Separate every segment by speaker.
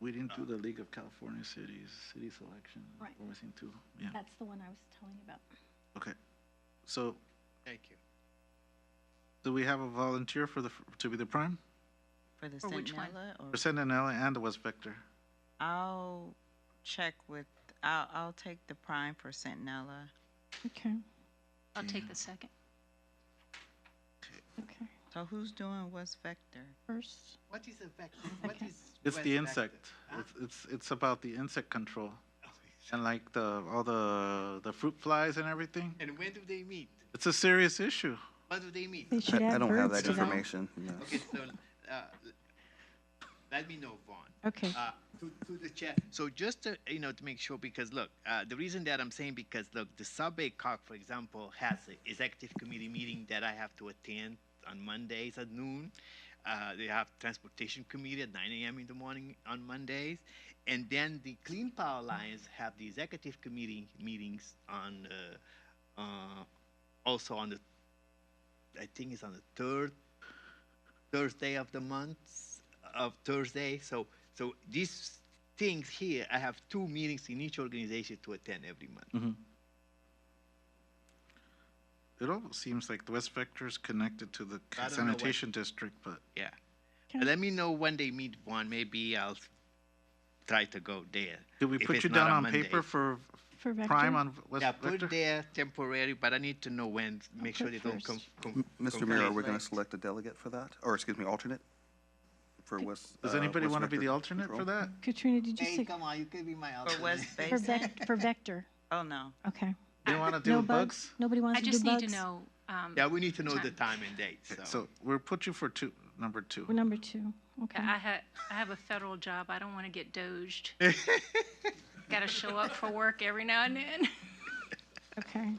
Speaker 1: We didn't
Speaker 2: Uh.
Speaker 1: do the League of California Cities, city selection.
Speaker 3: Right.
Speaker 1: We're missing two, yeah,
Speaker 3: That's the one I was telling you about.
Speaker 1: okay. So,
Speaker 2: Thank you.
Speaker 1: do we have a volunteer for the, to be the prime?
Speaker 4: For the
Speaker 2: For which
Speaker 4: St.
Speaker 2: one?
Speaker 4: Nella, or
Speaker 1: For San Daniel and the West Vector.
Speaker 4: I'll check with, I'll, I'll take the prime for Centinela.
Speaker 3: Okay,
Speaker 2: I'll take the second.
Speaker 3: okay.
Speaker 4: So who's doing West Vector?
Speaker 3: First,
Speaker 2: What is a vector? What
Speaker 3: Okay.
Speaker 2: is?
Speaker 1: It's
Speaker 2: West
Speaker 1: the
Speaker 2: vector?
Speaker 1: insect.
Speaker 2: Huh?
Speaker 1: It's, it's, it's about the insect control and like the, all the, the fruit flies and everything.
Speaker 2: And when do they meet?
Speaker 1: It's a serious issue.
Speaker 2: What do they meet?
Speaker 3: they should
Speaker 5: I I
Speaker 3: add
Speaker 5: don't have
Speaker 3: birds
Speaker 5: that
Speaker 3: to that.
Speaker 5: information. no.
Speaker 2: Okay, so, uh, let me know, Vaughn.
Speaker 3: Okay,
Speaker 2: Uh, to, to the chair. So just to, you know, to make sure, because look, uh, the reason that I'm saying, because look, the Subway Cock, for example, has an executive committee meeting that I have to attend on Mondays at noon. Uh, they have transportation committee at 9 a.m. in the morning on Mondays, and then the Clean Power Alliance have the executive committee meetings on, uh, uh, also on the, I think it's on the third Thursday of the month of Thursday. So so these things here, I have two meetings in each organization to attend every month.
Speaker 1: Mm-hmm. It almost seems like the West Vector is connected to the
Speaker 2: I don't know what-
Speaker 1: sanitation district, but
Speaker 2: Yeah.
Speaker 3: Okay.
Speaker 2: Let me know when they meet one. Maybe I'll try to go there.
Speaker 1: did we
Speaker 2: if
Speaker 1: put
Speaker 2: it's
Speaker 1: you
Speaker 2: not
Speaker 1: down on
Speaker 2: Monday.
Speaker 1: paper for
Speaker 3: for vector.
Speaker 1: prime on West
Speaker 2: Yeah, put
Speaker 1: Vector?
Speaker 2: there temporary, but I need to know when. Make
Speaker 3: Okay,
Speaker 2: sure they don't come.
Speaker 3: first.
Speaker 2: Com-
Speaker 5: Mr.
Speaker 2: conflict.
Speaker 5: Mayor, are we going to select a delegate for that? Or, excuse me, alternate? For West.
Speaker 1: Does
Speaker 5: uh,
Speaker 1: anybody
Speaker 5: West
Speaker 1: want to be
Speaker 5: Vector
Speaker 1: the alternate for
Speaker 5: Control?
Speaker 1: that?
Speaker 3: Katrina, did you
Speaker 2: Hey,
Speaker 3: say,
Speaker 2: come on, you can be my
Speaker 4: For West
Speaker 2: alternate.
Speaker 3: for
Speaker 4: Basin?
Speaker 3: vec, for vector?
Speaker 4: Oh, no.
Speaker 3: Okay.
Speaker 1: They want to
Speaker 3: No
Speaker 1: do bugs?
Speaker 3: Nobody wants
Speaker 6: I
Speaker 3: to do
Speaker 6: just
Speaker 3: bugs?
Speaker 6: need to know, um,
Speaker 2: Yeah, we need to know the time and date. So,
Speaker 1: So we'll put you for two, number
Speaker 3: We're
Speaker 1: two.
Speaker 3: number two, okay.
Speaker 6: I ha, I have a federal job. I don't want to get doged. Got to show up for work every now and then.
Speaker 3: Okay,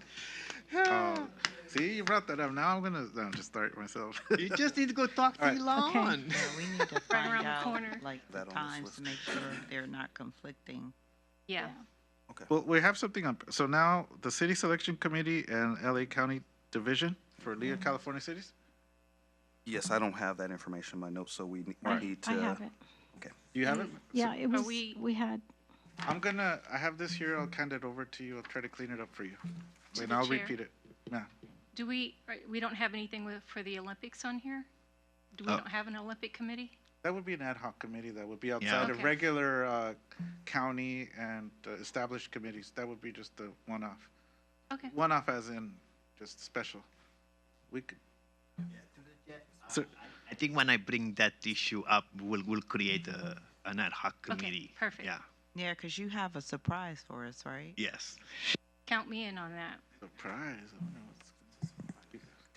Speaker 1: Oh, See, you brought that up. Now I'm gonna, no, I'm just start myself.
Speaker 2: you just need to go talk to
Speaker 1: Alright.
Speaker 2: Elon.
Speaker 4: Yeah, we need to find
Speaker 6: around the
Speaker 4: out,
Speaker 6: corner.
Speaker 4: like, the
Speaker 5: That on this
Speaker 4: times to
Speaker 5: list.
Speaker 4: make sure they're not conflicting.
Speaker 6: Yeah.
Speaker 1: Well, we have something on, so now the city selection committee and LA County Division for League
Speaker 6: Mm-hmm.
Speaker 1: of California Cities?
Speaker 5: Yes, I don't have that information in my notes, so we ne- we
Speaker 3: I,
Speaker 5: need to.
Speaker 3: I have it.
Speaker 5: Okay.
Speaker 1: Do you have it?
Speaker 6: Mm-hmm.
Speaker 3: Yeah, it was,
Speaker 6: we-
Speaker 3: we had,
Speaker 1: I'm gonna, I have this here. I'll hand it over to you. I'll try to clean it up for you.
Speaker 6: To
Speaker 1: And
Speaker 6: the
Speaker 1: I'll
Speaker 6: chair.
Speaker 1: repeat it. Yeah.
Speaker 6: Do we, right, we don't have anything with, for the Olympics on here? Do we
Speaker 1: Oh.
Speaker 6: don't have an Olympic committee?
Speaker 1: That would be an ad hoc committee that would be outside of
Speaker 6: Okay.
Speaker 1: regular uh, county and uh, established committees. That would be just the one-off.
Speaker 6: Okay.
Speaker 1: One-off as in just special. We could, Sir,
Speaker 2: I think when I bring that issue up, we'll we'll create a an ad hoc
Speaker 6: Okay,
Speaker 2: committee.
Speaker 6: perfect.
Speaker 2: Yeah.
Speaker 4: Yeah, because you have a surprise for us, right?
Speaker 2: Yes.
Speaker 6: Count me in on that.
Speaker 1: surprise. I wonder what's-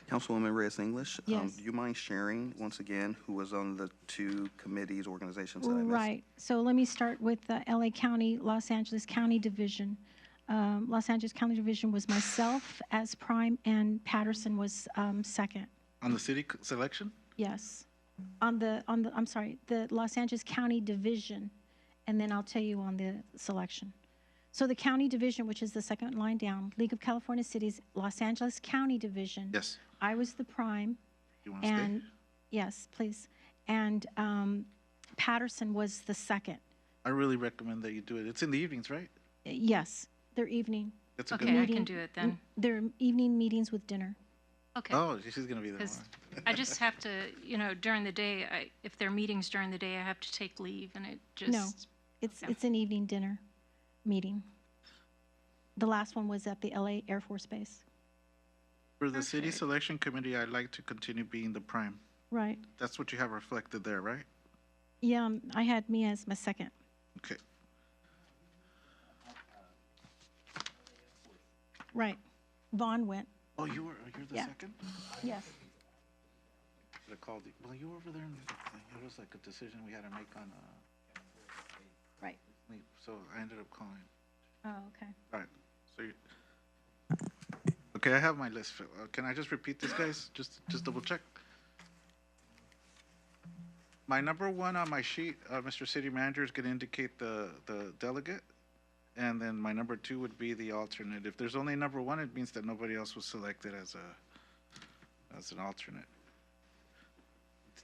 Speaker 5: Councilwoman Reyes English, um,
Speaker 3: Yes.
Speaker 5: do you mind sharing, once again, who was on the two committees, organizations that I missed?
Speaker 3: right, so let me start with the LA County, Los Angeles County Division. Um, Los Angeles County Division was myself as prime and Patterson was, um, second.
Speaker 1: On the city c- selection?
Speaker 3: Yes. On the, on the, I'm sorry, the Los Angeles County Division, and then I'll tell you on the selection. So the County Division, which is the second line down, League of California Cities, Los Angeles County Division.
Speaker 1: Yes.
Speaker 3: I was the prime,
Speaker 1: You want to stay?
Speaker 3: and, yes, please. And um, Patterson was the second.
Speaker 1: I really recommend that you do it. It's in the evenings, right?
Speaker 3: Yes, their evening.
Speaker 1: That's a good
Speaker 6: Okay, I
Speaker 1: one.
Speaker 6: can
Speaker 3: meeting-
Speaker 6: do it then.
Speaker 3: Their evening meetings with dinner.
Speaker 6: Okay.
Speaker 1: Oh, she's gonna be there.
Speaker 6: Because
Speaker 1: tomorrow.
Speaker 6: I just have to, you know, during the day, I, if there are meetings during the day, I have to take leave and it just,
Speaker 3: It's,
Speaker 6: Okay.
Speaker 3: it's an evening dinner meeting. The last one was at the LA Air Force Base.
Speaker 1: For the city
Speaker 6: Perfect.
Speaker 1: selection committee, I'd like to continue being the prime.
Speaker 3: Right.
Speaker 1: That's what you have reflected there, right?
Speaker 3: Yeah, um, I had me as my second.
Speaker 1: Okay.
Speaker 3: Right. Vaughn went.
Speaker 1: Oh, you were, you're the
Speaker 3: Yeah.
Speaker 1: second?
Speaker 3: Yes.
Speaker 1: Should have called you. Well, you were over there. and It was like a decision we had to make on, uh,
Speaker 3: Right.
Speaker 1: leave, so I ended up calling.
Speaker 3: Oh, okay.
Speaker 1: All right, so you, okay, I have my list. Phil. Uh, Can I just repeat this, guys? Just, just double check. My number one on my sheet, uh, Mr. City Manager is gonna indicate the, the delegate. And then my number two would be the alternate. If there's only number one, it means that nobody else was selected as a, as an alternate.